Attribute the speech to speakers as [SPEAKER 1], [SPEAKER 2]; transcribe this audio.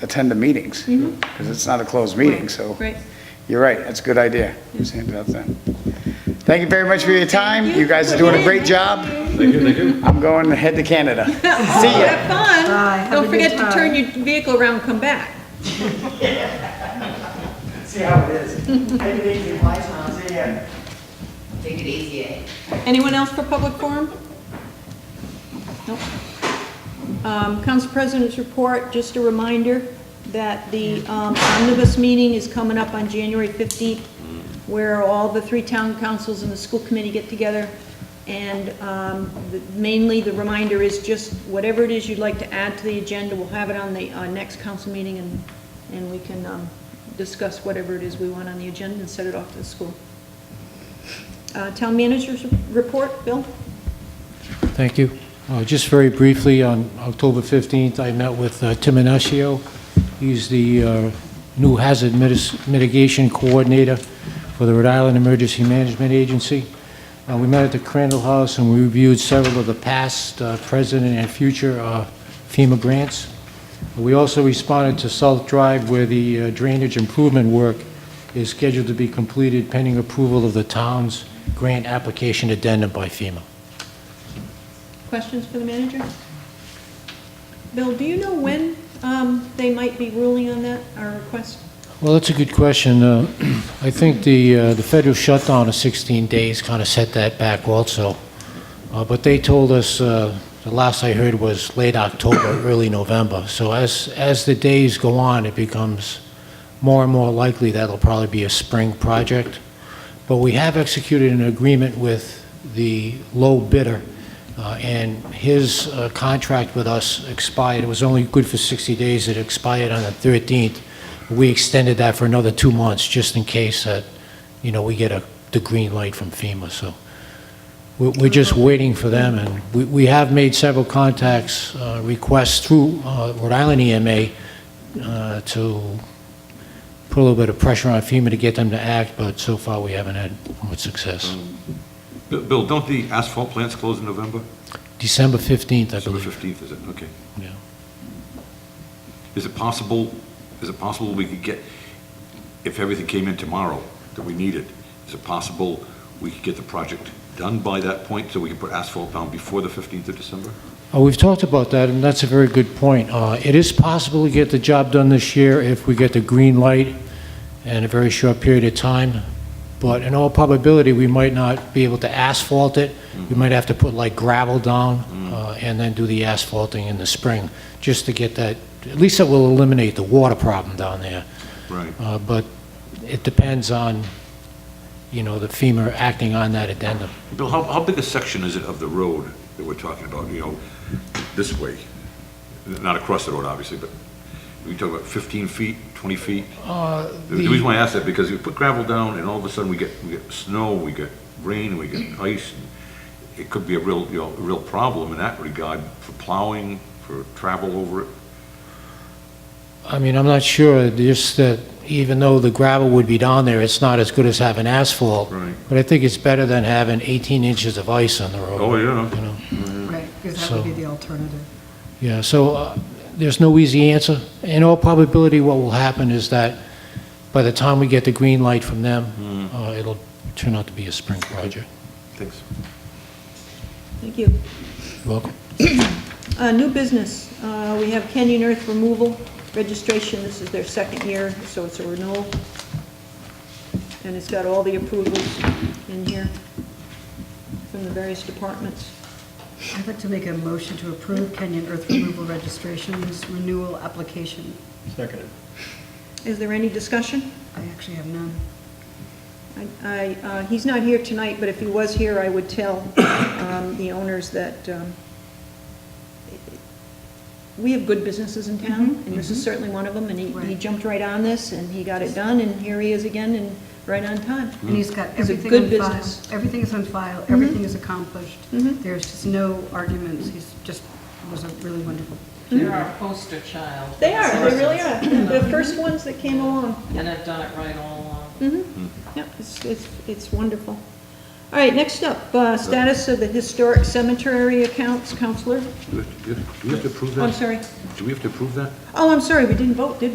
[SPEAKER 1] attend the meetings, because it's not a closed meeting, so.
[SPEAKER 2] Right.
[SPEAKER 1] You're right, that's a good idea. Just hand it out then. Thank you very much for your time.
[SPEAKER 2] you.
[SPEAKER 1] You guys are doing a great job.
[SPEAKER 3] Thank you, thank you.
[SPEAKER 1] I'm going to head to Canada. See ya.
[SPEAKER 2] Have fun.
[SPEAKER 4] Bye. Have a
[SPEAKER 2] Don't
[SPEAKER 4] good
[SPEAKER 2] forget to
[SPEAKER 4] time.
[SPEAKER 2] turn your vehicle around and come back.
[SPEAKER 5] See how it is. Take it easy, my son, see ya.
[SPEAKER 6] Take it easy, eh?
[SPEAKER 2] Anyone else for public forum? Nope. Um, Council President's report, just a reminder that the um, omnibus meeting is coming up on January 15th, where all the three town councils and the school committee get together. And um, the- mainly, the reminder is just whatever it is you'd like to add to the agenda, we'll have it on the uh, next council meeting, and, and we can um, discuss whatever it is we want on the agenda and set it off to the school. Uh, Town managers report, Bill?
[SPEAKER 7] Thank you. Uh, Just very briefly, on October 15th, I met with uh, Tim Inacio. He's the uh, new hazard mitis- mitigation coordinator for the Rhode Island Emergency Management Agency. Uh, We met at the Crandall House, and we reviewed several of the past, uh, present, and future uh, FEMA grants. We also responded to South Drive, where the uh, drainage improvement work is scheduled to be completed pending approval of the town's grant application addendum by FEMA.
[SPEAKER 2] Questions for the manager? Bill, do you know when um, they might be ruling on that, our request?
[SPEAKER 7] Well, that's a good question. Uh, I think the, uh, the federal shutdown of 16 days kind of set that back also. Uh, But they told us, uh, the last I heard was late October, early November. So as, as the days go on, it becomes more and more likely that'll probably be a spring project. But we have executed an agreement with the low bidder, uh, and his uh, contract with us expired. It was only good for 60 days. It expired on the 13th. We extended that for another two months, just in case that, you know, we get a, the green light from FEMA, so we're we're just waiting for them, and we we have made several contacts, uh, requests through uh, Rhode Island EMA uh, to put a little bit of pressure on FEMA to get them to act, but so far, we haven't had much success.
[SPEAKER 3] Bill- Bill, don't the asphalt plants close in November?
[SPEAKER 7] December 15th, I
[SPEAKER 3] December
[SPEAKER 7] believe.
[SPEAKER 3] 15th, is it? Okay.
[SPEAKER 7] Yeah.
[SPEAKER 3] Is it possible, is it possible we could get, if everything came in tomorrow that we needed, is it possible we could get the project done by that point so we can put asphalt down before the 15th of December?
[SPEAKER 7] Oh, We've talked about that, and that's a very good point. Uh, It is possible to get the job done this year if we get the green light in a very short period of time, but in all probability, we might not be able to asphalt it. We might have to put like gravel down uh, and then do the asphalting in the spring, just to get that, at least that will eliminate the water problem down there.
[SPEAKER 3] Right.
[SPEAKER 7] Uh, But it depends on, you know, the FEMA acting on that addendum.
[SPEAKER 3] Bill, how, how big a section is it of the road that we're talking about, you know, this way? Not across the road, obviously, but we talk about 15 feet, 20 feet?
[SPEAKER 7] Uh,
[SPEAKER 3] The the reason why I ask that, because you put gravel down, and all of a sudden, we get, we get snow, we get rain, we get ice, and it could be a real, you know, a real problem in that regard for plowing, for travel over it.
[SPEAKER 7] I mean, I'm not sure, just that even though the gravel would be down there, it's not as good as having asphalt.
[SPEAKER 3] Right.
[SPEAKER 7] But I think it's better than having 18 inches of ice on the road.
[SPEAKER 3] Oh, yeah.
[SPEAKER 7] You know,
[SPEAKER 4] Right, because that would be
[SPEAKER 7] So-
[SPEAKER 4] the alternative.
[SPEAKER 7] yeah, so uh, there's no easy answer. In all probability, what will happen is that by the time we get the green light from them,
[SPEAKER 3] Hmm.
[SPEAKER 7] uh, it'll turn out to be a spring project.
[SPEAKER 3] Thanks.
[SPEAKER 2] Thank you.
[SPEAKER 7] You're Welcome.
[SPEAKER 2] Uh, New business, uh, we have Canyon Earth Removal Registration, this is their second year, so it's a renewal. And it's got all the approvals in here from the various departments.
[SPEAKER 4] I'd like to make a motion to approve Kenyon Earth Removal Registration's renewal application.
[SPEAKER 2] Is there any discussion?
[SPEAKER 4] I actually have none.
[SPEAKER 2] I, I, uh, he's not here tonight, but if he was here, I would tell um, the owners that um, we have good businesses in town, and this is certainly one of them, and he- he
[SPEAKER 4] Right.
[SPEAKER 2] jumped Mm-hmm. right on this, and he got it done, and here he is again, and right on time.
[SPEAKER 4] And he's got
[SPEAKER 2] It's a
[SPEAKER 4] everything
[SPEAKER 2] good
[SPEAKER 4] on file.
[SPEAKER 2] business. Mm-hmm.
[SPEAKER 4] Everything is on file, everything is accomplished.
[SPEAKER 2] Mhm.
[SPEAKER 4] There's just no arguments, he's just, was a really wonderful.
[SPEAKER 8] They're our poster child.
[SPEAKER 2] Mm-hmm. They are, they really are, the first ones that came along.
[SPEAKER 8] And I've done it right all along.
[SPEAKER 2] Mm-hmm, yeah, it's, it's, it's wonderful. All right, next up, uh, status of the historic cemetery accounts, Counselor.
[SPEAKER 3] Do we have to- do we have to approve
[SPEAKER 2] Oh, I'm
[SPEAKER 3] that?
[SPEAKER 2] sorry.
[SPEAKER 3] Do we have to approve that?
[SPEAKER 2] Oh, I'm sorry, we didn't vote, did we?